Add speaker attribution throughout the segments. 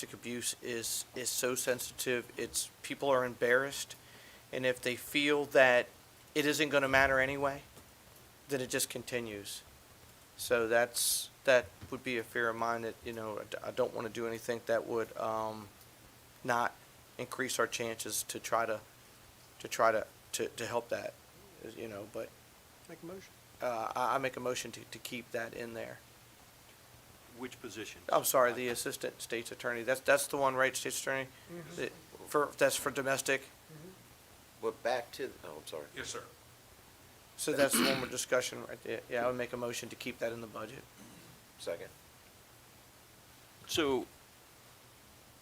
Speaker 1: domestic abuse is is so sensitive. It's people are embarrassed, and if they feel that it isn't going to matter anyway, then it just continues. So that's that would be a fear of mine that you know I d- I don't want to do anything that would um, not increase our chances to try to to try to to, to help that, you know. But
Speaker 2: Make a motion.
Speaker 1: uh, I, I make a motion to, to keep that in there.
Speaker 3: Which position?
Speaker 1: I'm sorry, the assistant state's attorney, that's, that's the one, right, state's attorney? That- For, that's for domestic,
Speaker 4: But back to, oh, I'm sorry.
Speaker 3: Yes, sir.
Speaker 1: so that's the one we're discussing, right there. Yeah, I would make a motion to keep that in the budget.
Speaker 4: Second.
Speaker 5: So,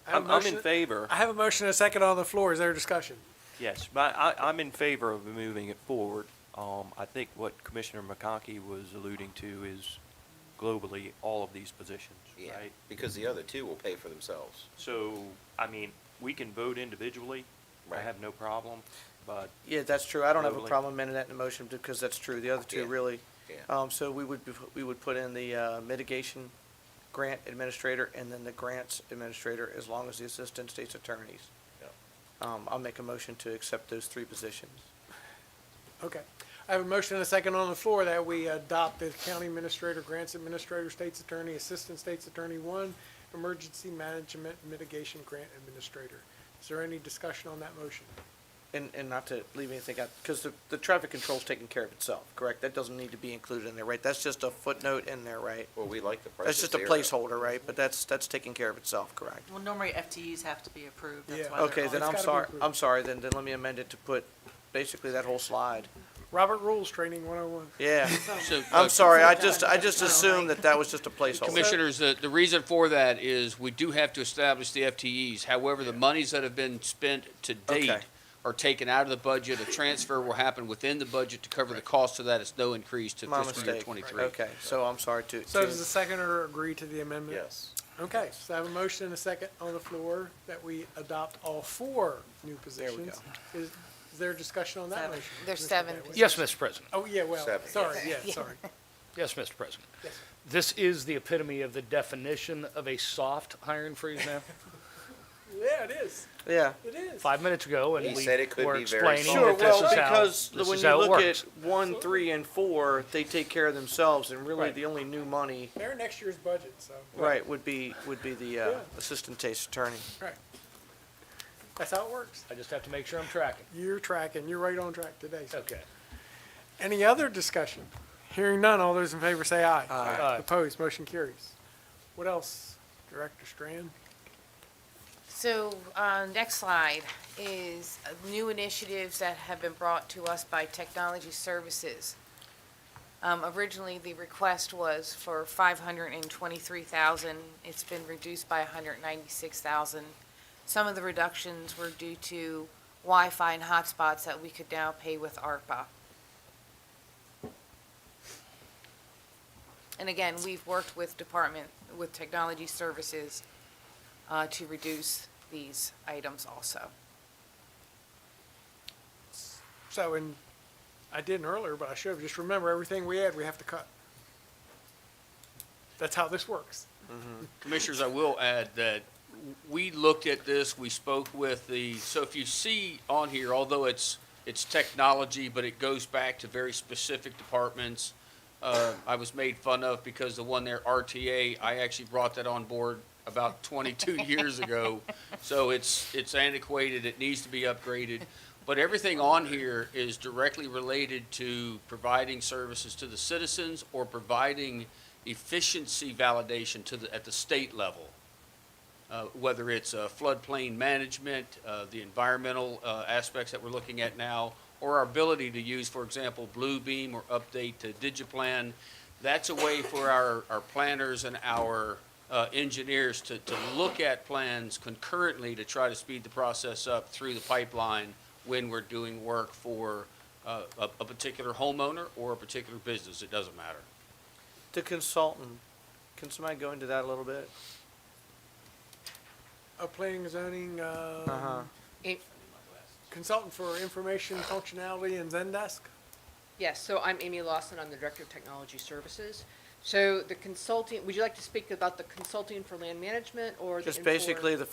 Speaker 2: I have a
Speaker 5: I'm- I'm in
Speaker 2: motion-
Speaker 5: favor.
Speaker 2: I have a motion and a second on the floor. Is there a discussion?
Speaker 5: yes, my, I, I'm in favor of moving it forward. Um, I think what Commissioner McConkey was alluding to is globally, all of these positions,
Speaker 4: Yeah,
Speaker 5: right?
Speaker 4: because the other two will pay for themselves.
Speaker 5: So, I mean, we can vote individually. I
Speaker 4: Right.
Speaker 5: have no problem, but
Speaker 1: Yeah, that's true, I don't have a
Speaker 5: Totally.
Speaker 1: problem amending that in the motion, because that's true, the other two
Speaker 4: Yeah.
Speaker 1: really.
Speaker 4: Yeah.
Speaker 1: Um, so we would, be- we would put in the uh, mitigation grant administrator and then the grants administrator, as long as the assistant state's attorneys.
Speaker 4: Yep.
Speaker 1: Um, I'll make a motion to accept those three positions.
Speaker 2: Okay. I have a motion and a second on the floor that we adopt the county administrator, grants administrator, state's attorney, assistant state's attorney one, emergency management mitigation grant administrator. Is there any discussion on that motion?
Speaker 1: And, and not to leave anything out, because the, the traffic control's taking care of itself, correct? That doesn't need to be included in there, right? That's just a footnote in there, right?
Speaker 4: Well, we like the price
Speaker 1: That's
Speaker 4: of
Speaker 1: just a
Speaker 4: zero.
Speaker 1: placeholder, right? But that's, that's taking care of itself, correct?
Speaker 6: Well, normally FTEs have to be approved,
Speaker 2: Yeah.
Speaker 6: that's why they're
Speaker 1: Okay,
Speaker 6: on.
Speaker 1: then
Speaker 2: It's
Speaker 1: I'm
Speaker 2: gotta be
Speaker 1: sorry,
Speaker 2: approved.
Speaker 1: I'm sorry, then, then let me amend it to put basically that whole slide.
Speaker 2: Robert Rules Training one oh one.
Speaker 1: Yeah,
Speaker 7: So, uh,
Speaker 1: I'm sorry, I just, I just assumed that that was just a placeholder.
Speaker 7: Commissioners, the, the reason for that is we do have to establish the FTEs. However, the monies that have been spent to
Speaker 1: Okay.
Speaker 7: date are taken out of the budget. A transfer will happen within the budget to cover the cost of that. It's no increase to
Speaker 1: My
Speaker 7: fiscal year
Speaker 1: mistake.
Speaker 7: twenty-three.
Speaker 1: Okay, so I'm sorry to,
Speaker 2: So does the
Speaker 1: to,
Speaker 2: seconder agree to the amendment?
Speaker 4: Yes.
Speaker 2: Okay, so I have a motion and a second on the floor that we adopt all four new positions. Is, is there discussion on that
Speaker 6: Seven.
Speaker 2: motion?
Speaker 8: There's
Speaker 2: Mr.
Speaker 8: seven
Speaker 2: Gateway?
Speaker 8: positions.
Speaker 9: Yes, Mr. President.
Speaker 2: Oh, yeah, well,
Speaker 4: Seven.
Speaker 2: sorry, yeah, sorry.
Speaker 9: Yes, Mr. President. This is the epitome of the definition of a soft hiring freeze now.
Speaker 2: Yeah, it is,
Speaker 1: yeah.
Speaker 2: it is.
Speaker 9: Five minutes ago,
Speaker 4: He
Speaker 9: and we
Speaker 4: said it could
Speaker 9: were
Speaker 4: be very
Speaker 9: explaining
Speaker 4: soft.
Speaker 1: Sure,
Speaker 9: that this
Speaker 1: well,
Speaker 9: is how,
Speaker 1: because
Speaker 9: this
Speaker 1: when
Speaker 9: is
Speaker 1: you
Speaker 9: how it
Speaker 1: look at
Speaker 9: works.
Speaker 1: one, three, and four, they take care of themselves, and really
Speaker 9: Right.
Speaker 1: the only new money
Speaker 2: They're next year's budget, so.
Speaker 1: Right, would be, would be the uh,
Speaker 2: Yeah.
Speaker 1: assistant state's attorney.
Speaker 2: Right. That's how it works.
Speaker 9: I just have to make sure I'm tracking.
Speaker 2: You're tracking, you're right on track today. sir.
Speaker 9: Okay.
Speaker 2: Any other discussion? Hearing none, all those in favor say aye.
Speaker 9: Aye.
Speaker 2: Opposed, motion carries. What else, Director Strand?
Speaker 8: So, uh, next slide is new initiatives that have been brought to us by Technology Services. Um, originally, the request was for five hundred and twenty-three thousand. It's been reduced by hundred and ninety-six thousand. Some of the reductions were due to Wi-Fi and hotspots that we could now pay with ARPA. And again, we've worked with department, with Technology Services uh, to reduce these items also.
Speaker 2: So, and I didn't earlier, but I should have, just remember, everything we add, we have to cut. That's how this works.
Speaker 7: Commissioners, I will add that we looked at this, we spoke with the, so if you see on here, although it's, it's technology, but it goes back to very specific departments. Uh, I was made fun of because the one there, RTA, I actually brought that on board about twenty-two years ago. So it's, it's antiquated, it needs to be upgraded. But everything on here is directly related to providing services to the citizens or providing efficiency validation to the, at the state level. Uh, whether it's uh, floodplain management, uh, the environmental uh, aspects that we're looking at now, or our ability to use, for example, Bluebeam or update to Digiplan, that's a way for our, our planners and our uh, engineers to, to look at plans concurrently to try to speed the process up through the pipeline when we're doing work for uh, a, a particular homeowner or a particular business. It doesn't matter.
Speaker 1: The consultant, can somebody go into that a little bit?
Speaker 2: A planning and zoning,
Speaker 1: Uh-huh.
Speaker 2: uh, consultant for information functionality in Zendesk?
Speaker 10: Yes, so I'm Amy Lawson, I'm the Director of Technology Services.
Speaker 8: So the consulting, would you like to speak about the consulting for land management or the
Speaker 1: Just
Speaker 8: Infor-
Speaker 1: basically the